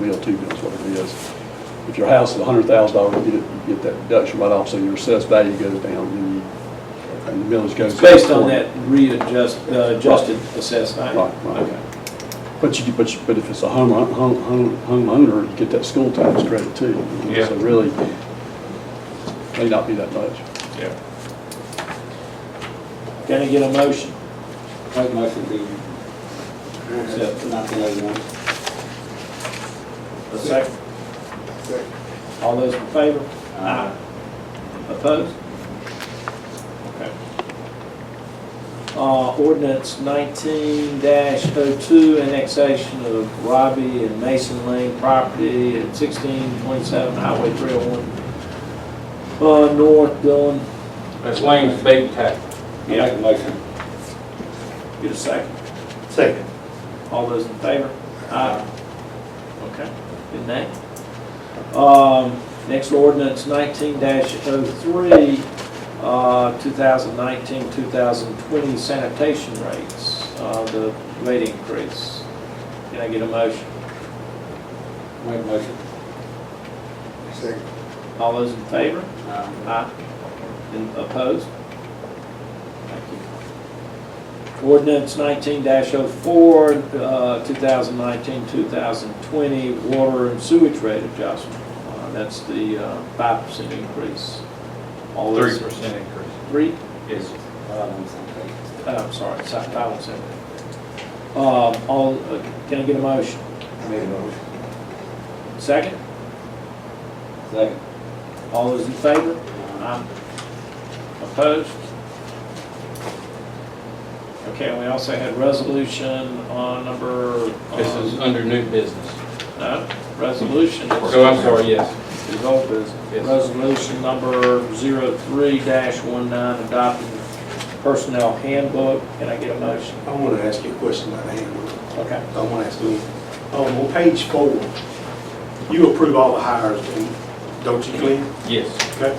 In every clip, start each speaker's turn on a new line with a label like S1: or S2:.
S1: mill, two mills, whatever it is. If your house is hundred thousand dollars, you get, it- you get that deduction right off, so your assessed value goes down, and you, and the millage goes.
S2: It's based on that readjust, uh, adjusted assessed value?
S1: Right, right. But you, but, you- but if it's a home, home, home, homeowner, you get that school tax credit too.
S3: Yeah.
S1: So really, may not be that much.
S3: Yeah.
S2: Can I get a motion?
S4: Make motion to
S2: Accept.
S4: accept nineteen eighty-one.
S2: A second? All those in favor?
S4: Aye.
S2: Opposed? Okay. Uh, ordinance nineteen 2 annexation of Robbie and Mason Lane property at sixteen twenty-seven Highway three oh one. Uh, North Dillon,
S3: That's Lane's bait tax.
S4: Make a motion.
S2: get a second.
S5: Second.
S2: All those in favor? Aye. Okay, good night. Um, next ordinance nineteen 3 uh, 2019-2020 sanitation rates, uh, the rate increase. Can I get a motion?
S4: Make a motion.
S5: Second.
S2: All those in favor?
S3: Uh,
S4: Aye.
S2: Aye. And opposed? Thank you. Ordinance nineteen 4 uh, 2019-2020 water and sewage rate adjustment. Uh, That's the, uh, five percent increase. All
S3: Three
S2: those,
S3: percent increase.
S2: three,
S3: Yes.
S4: All on the same page.
S2: uh, I'm sorry, si- I was saying. Um, all, uh, can I get a motion?
S5: Made a motion.
S2: Second?
S4: Second.
S2: All those in favor? Aye. Opposed? Okay, and we also had resolution on number,
S3: This is
S2: um,
S3: under new business.
S2: no, resolution.
S3: So I'm sorry, yes.
S2: It's old business.
S3: Yes.
S2: Resolution number 03-19, adopting personnel handbook. Can I get a motion?
S5: I want to ask you a question about the handbook.
S2: Okay.
S5: I want to ask you, um, on page four, you approve all the hires, and don't you, Glenn?
S3: Yes.
S5: Okay.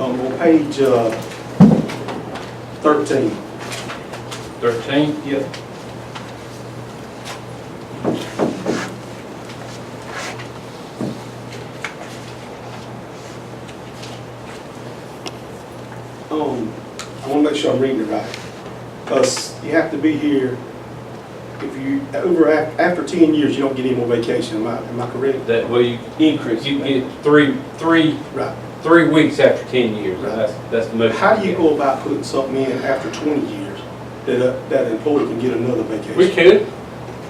S5: Um, on page, uh, thirteen,
S3: Thirteen? Yes.
S5: um, I want to make sure I'm reading it right. Because you have to be here, if you, over, af- after ten years, you don't get any more vacation, am I, am I correct?
S3: That way you,
S2: Increase.
S3: you get three, three,
S5: Right.
S3: three weeks after ten years. That's, that's the most.
S5: How do you go about putting something in after twenty years that, a- that an employee can get another vacation?
S3: We could.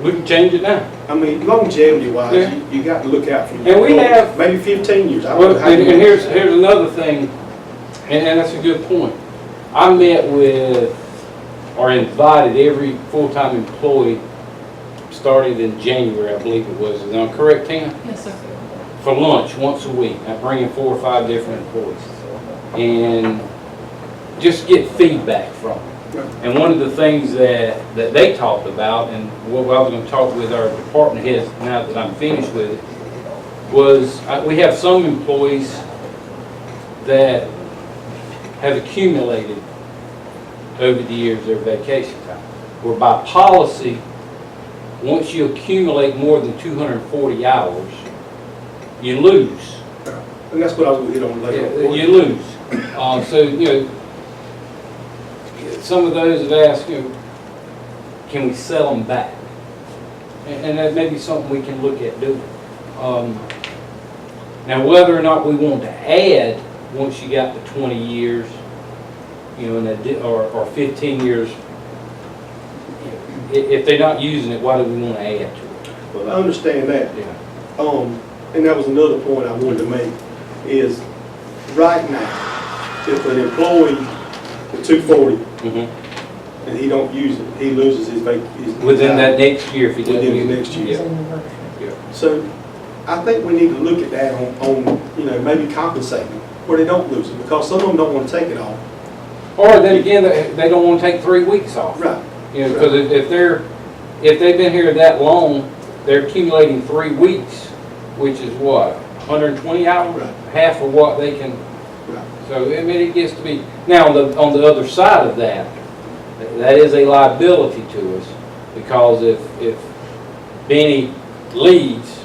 S3: We can change it now.
S5: I mean, longevity wise,
S3: Yeah.
S5: you, you got to look out for your.
S3: And we
S5: employees.
S3: have-
S5: Maybe fifteen years. I don't
S3: Well,
S5: know how
S3: and,
S5: you-
S3: and here's, here's another thing, and, and that's a good point. I met with, or invited every full-time employee, started in January, I believe it was, is that correct, Tina?
S6: Yes, sir.
S3: For lunch, once a week, I bring in four or five different employees. And just get feedback from
S5: Right.
S3: them. And one of the things that, that they talked about, and what I was gonna talk with our department heads now that I'm finished with it, was, uh, we have some employees that have accumulated over the years their vacation time. Where by policy, once you accumulate more than 240 hours, you lose.
S5: And that's what I was gonna hit on
S3: Yeah,
S5: later.
S3: You lose. Uh, So, you know, some of those have asked, you know, can we sell them back? And and that may be something we can look at doing. Um, Now, whether or not we want to add, once you got to 20 years, you know, and that di- or or 15 years, i- if they're not using it, why do we want to add to it?
S5: Well, I understand that.
S3: Yeah.
S5: Um, and that was another point I wanted to make, is right now, if an employee with two forty
S3: Mhm.
S5: and he don't use it, he loses his vac, his.
S3: Within that next year, if you don't
S5: Within the
S3: use
S5: next
S3: it.
S5: year.
S3: Yeah.
S5: So I think we need to look at that on, on, you know, maybe compensating where they don't lose it, because some of them don't wanna take it all.
S3: Or then again, they they don't want to take three weeks off.
S5: Right.
S3: You know, because if if they're, if they've been here that long, they're accumulating three weeks, which is what, 120 hours?
S5: Right.
S3: Half of what they can,
S5: Right.
S3: so I mean, it gets to be, now, on the, on the other side of that, that is a liability to us, because if, if Benny leaves